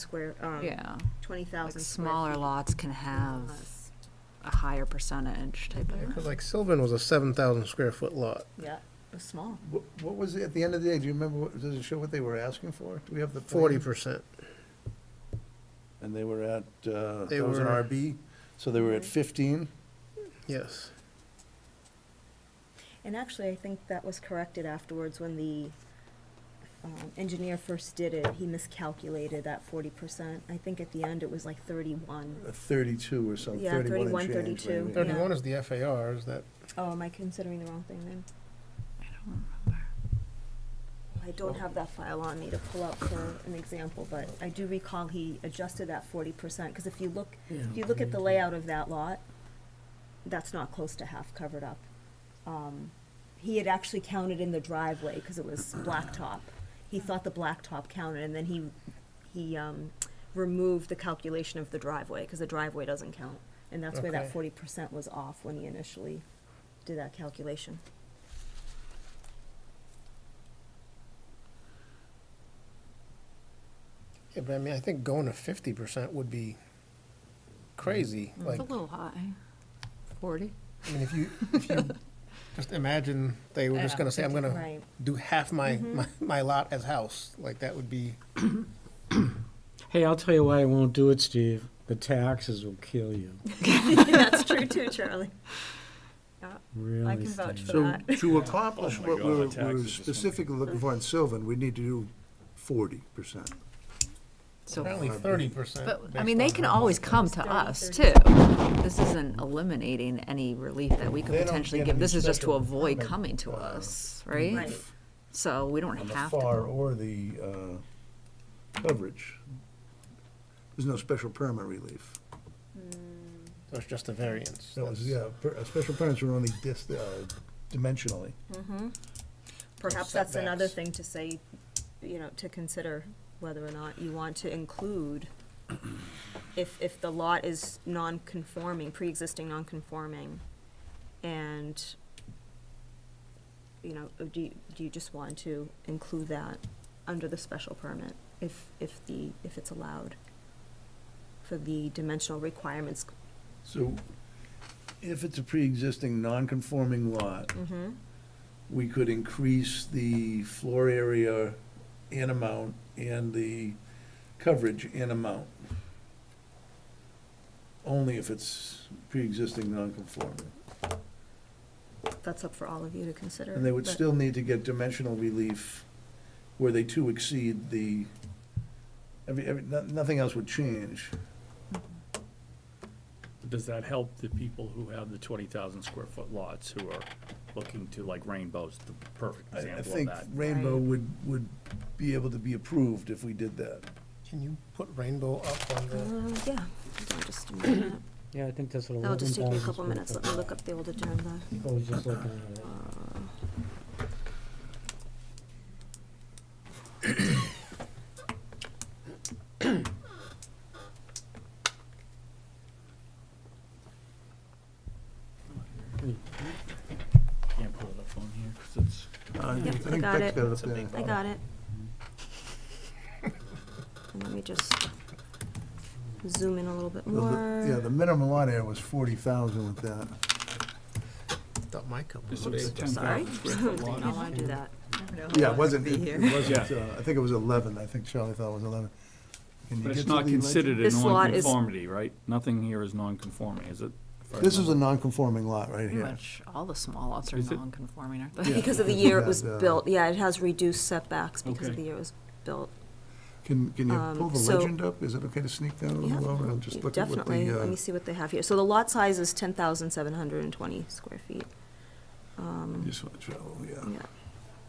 square, um, Yeah, twenty like thousand. smaller lots can have a higher percentage type of. Because like Sylvan was a seven thousand square foot lot. Yeah, it was small. What, what was it, at the end of the day, do you remember, what- does it show what they were asking for? Do we have the? plan? Forty percent. And they were at, uh, They that was an were- RB, so they were at fifteen? Yes. And actually, I think that was corrected afterwards when the um, engineer first did it. He miscalculated that forty percent. I think at the end it was like thirty-one. uh, Thirty-two or something, Yeah, thirty-one 31, and change. 32. maybe. Yeah. Thirty-one is the FAR, is that, Oh, am I considering the wrong thing then? I don't remember. I don't have that file on me to pull up for an example, but I do recall he adjusted that forty percent, because if you look, if you look at the layout of that lot, that's not close to half covered up. Um, he had actually counted in the driveway, because it was blacktop. He thought the blacktop counted, and then he, he, um, removed the calculation of the driveway, because the driveway doesn't count. And that's where that Okay. forty percent was off when he initially did that calculation. yeah, but I mean, I think going to fifty percent would be crazy, Mm. It's like, a little high. Forty? I mean, if you, if you, just imagine they were just gonna say, I'm gonna Right. Mm-hmm. do half my, my, my lot as house, like, that would be, Hey, I'll tell you why I won't do it, Steve. The taxes will kill you. That's true too, Charlie. Really. I can vouch Steve. for So that. to accomplish my what God, we're, the taxes we're is something. specifically looking for in Sylvan, we need to do forty percent. So, apparently thirty percent. but, I mean, they can always come to us too. This isn't eliminating any relief that we could They don't potentially get give. any This is just to special avoid permit, coming to uh, us, right? Right. So we don't On the have FAR to. or the, uh, coverage. There's no special permit relief. So it's just a variance. That was, yeah, per- uh, special permits were only dis, uh, dimensionally. Perhaps that's another setbacks. thing to say, you know, to consider whether or not you want to include if, if the lot is non-conforming, pre-existing non-conforming, and, you know, or do you, do you just want to include that under the special permit if, if the, if it's allowed for the dimensional requirements? So if it's a pre-existing non-conforming lot, Mm-hmm, we could increase the floor area in amount and the coverage in amount. Only if it's pre-existing non-conforming. that's up for all of you to consider. And they would but- still need to get dimensional relief where they too exceed the, every, every, no- nothing else would change. Does that help the people who have the twenty thousand square foot lots who are looking to like rainbows, the perfect I, I example of think that? Rainbow would, would be able to be approved if we did that. Can you put rainbow up on the, Uh, yeah, hold on just a minute. Yeah, I think that's what. That'll just take me a couple minutes, let me look up the old agenda. I was just looking at it. Can't pull it up on here, 'cause it's. Yep, I got it. up there. I got it. And let me just zoom in a little bit Well, more. the- Yeah, the minimum lot area was forty thousand with that. Uh-huh. up my cup? This is a ten Sorry, thousand square foot I lot. don't wanna do that. Yeah, it wasn't, it it wasn't, Yeah. uh, I think it was eleven, I think Charlie thought it was eleven. Can you But get it's to not the considered a This lot is- non-conformity, right? Nothing here is non-conforming, is it? If I legend? This is a remember. non-conforming lot right Pretty here. much all the small lots are Is it- non-conforming, aren't Yeah. they? Because of the year it was That, uh, built, yeah, it has reduced setbacks because of Okay. the year it was built. Can, can you Um, pull the so- legend up? Is it okay to sneak that a Yeah, little over? I'll just look at what Definitely, the, let uh, me see what they have here. So the lot size is ten thousand seven hundred and twenty square feet. Um, just want to travel, oh, yeah. Yeah,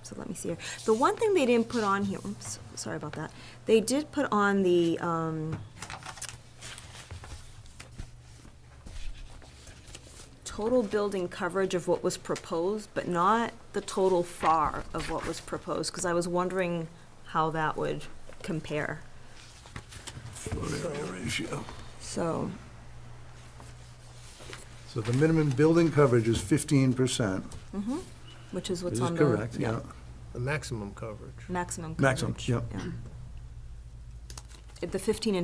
so let me see here. The one thing they didn't put on here, oops, sorry about that. They did put on the, um, total building coverage of what was proposed, but not the total FAR of what was proposed, because I was wondering how that would compare, Floor area ratio. so. So the minimum building coverage is fifteen percent, mhm, Which is what's which is on the. correct, yeah. The maximum coverage. Maximum Maximum, coverage. yep. yeah. the fifteen and